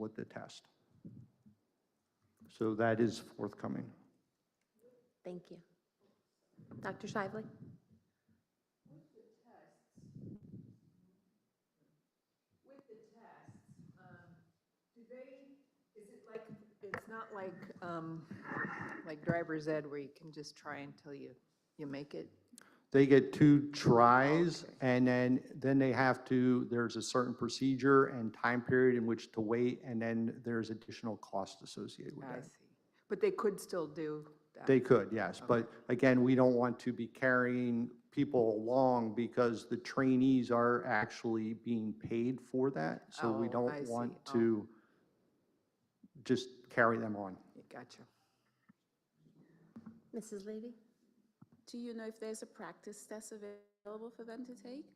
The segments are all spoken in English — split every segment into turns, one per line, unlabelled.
with the test. So that is forthcoming.
Thank you. Dr. Shively?
With the tests, um, do they, is it like, it's not like, um, like driver's ed where you can just try until you, you make it?
They get two tries, and then, then they have to, there's a certain procedure and time period in which to wait, and then there's additional cost associated with
I
that.
see. But they could still do that.
They could, yes, but again, we don't want to be carrying people along because the trainees are actually being paid for that, so we
Oh, I
don't
see.
want
Oh.
to just carry them on.
Gotcha.
Mrs. Levy?
Do you know if there's a practice test available for them to take?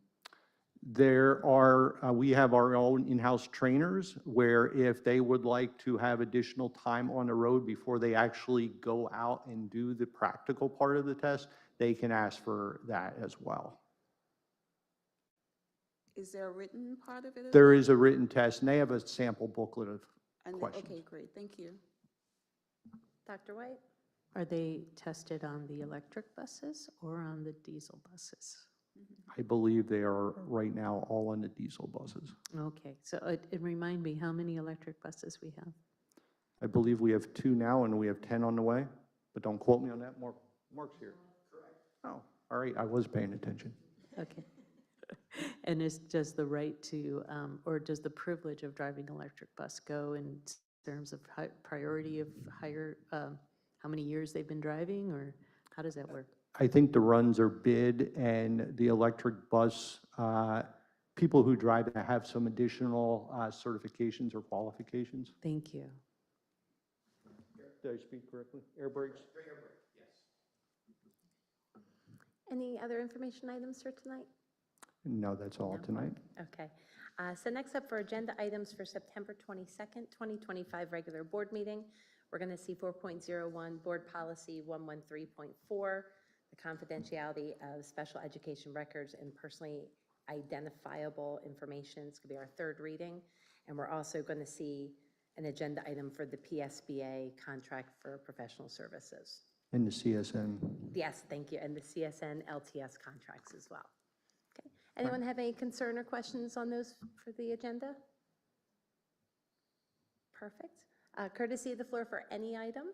There are, uh, we have our own in-house trainers where if they would like to have additional time on the road before they actually go out and do the practical part of the test, they can ask for that as well.
Is there a written part of it? as
There is a written test and they have a sample booklet of
well? And- Okay,
questions.
great, thank you.
Dr. White?
Are they tested on the electric buses or on the diesel buses?
I believe they are right now all on the diesel buses.
Okay, so it, it remind me how many electric buses we have?
I believe we have two now and we have 10 on the way, but don't quote me on that. Mark, Mark's here. Correct. Oh, all right, I was paying attention.
Okay. And is, does the right to, um, or does the privilege of driving electric bus go in terms of hi- priority of higher, um, how many years they've been driving, or how does that work?
I think the runs are bid and the electric bus, uh, people who drive that have some additional uh, certifications or qualifications.
Thank you.
Did I speak correctly? Air brakes?
Any other information items for tonight?
No, that's all tonight.
Okay. Uh, So next up for agenda items for September 22nd, 2025, regular board meeting, we're going to see 4.01, Board Policy 113.4, the confidentiality of special education records and personally identifiable information. It's going to be our third reading. And we're also going to see an agenda item for the PSBA contract for professional services.
And the CSN.
Yes, thank you, and the CSN LTS contracts as well. Okay. Anyone have any concern or questions on those for the agenda? Perfect. Uh, Courtesy of the floor for any item?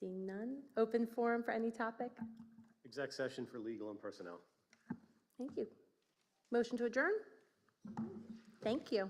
Seeing none. Open forum for any topic?
Exec session for legal and personnel.
Thank you. Motion to adjourn? Thank you.